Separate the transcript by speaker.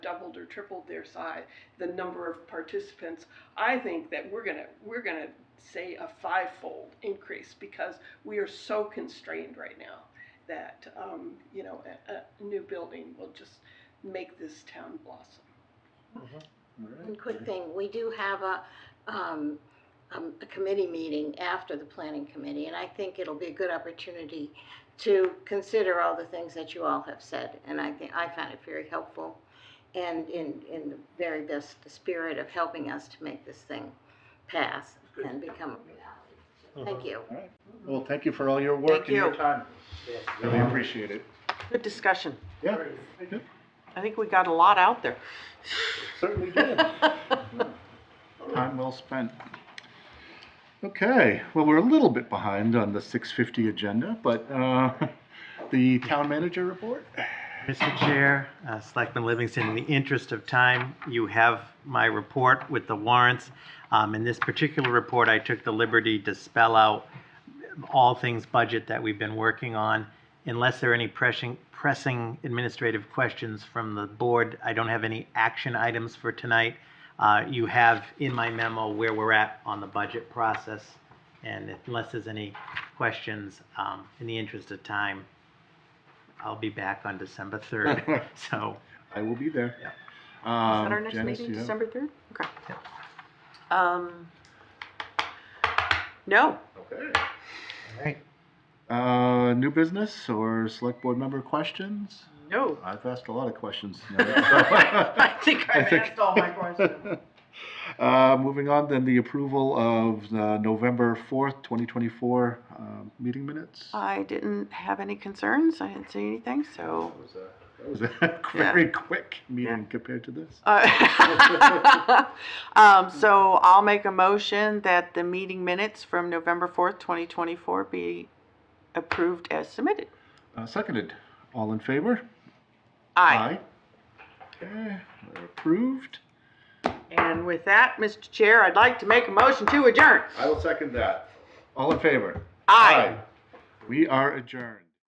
Speaker 1: doubled or tripled their size, the number of participants, I think that we're gonna, we're gonna say a fivefold increase because we are so constrained right now that, um, you know, a, a new building will just make this town blossom.
Speaker 2: One quick thing, we do have a, um, um, a committee meeting after the planning committee, and I think it'll be a good opportunity to consider all the things that you all have said, and I think, I found it very helpful and in, in the very best spirit of helping us to make this thing pass and become a reality. Thank you.
Speaker 3: All right. Well, thank you for all your work
Speaker 4: Thank
Speaker 3: and your
Speaker 4: you.
Speaker 3: time. Really appreciate it.
Speaker 4: Good discussion.
Speaker 3: Yeah,
Speaker 4: I think we got a lot out there.
Speaker 3: certainly did. Time well spent. Okay, well, we're a little bit behind on the six fifty agenda, but, uh, the town manager report?
Speaker 5: Mr. Chair, uh, Selectman Livingston, in the interest of time, you have my report with the warrants. Um, In this particular report, I took the liberty to spell out all things budget that we've been working on. Unless there are any pressing, pressing administrative questions from the board, I don't have any action items for tonight. Uh, You have in my memo where we're at on the budget process. And unless there's any questions, um, in the interest of time, I'll be back on December 3rd. So,
Speaker 3: I will be there.
Speaker 5: Yeah.
Speaker 3: Um,
Speaker 4: Is that our next
Speaker 3: Janice,
Speaker 4: meeting,
Speaker 3: you have-
Speaker 4: December third? Okay. Um, no,
Speaker 3: Okay.
Speaker 5: all right.
Speaker 3: Uh, new business or select board member questions?
Speaker 4: no.
Speaker 3: I've asked a lot of questions.
Speaker 4: I think
Speaker 3: I
Speaker 4: I've
Speaker 3: think-
Speaker 4: asked all my questions.
Speaker 3: Uh, moving on, then the approval of the November fourth, twenty twenty-four, um, meeting minutes.
Speaker 4: I didn't have any concerns. I didn't see anything, so.
Speaker 3: That was a- that was a very quick meeting compared to this.
Speaker 4: Uh, Um, so I'll make a motion that the meeting minutes from November fourth, twenty twenty-four be approved as submitted.
Speaker 3: Uh, seconded, all in favor?
Speaker 4: Aye.
Speaker 3: Okay, they're approved.
Speaker 4: And with that, Mr. Chair, I'd like to make a motion to adjourn.
Speaker 3: I will second that. All in favor?
Speaker 4: Aye.
Speaker 3: We are adjourned.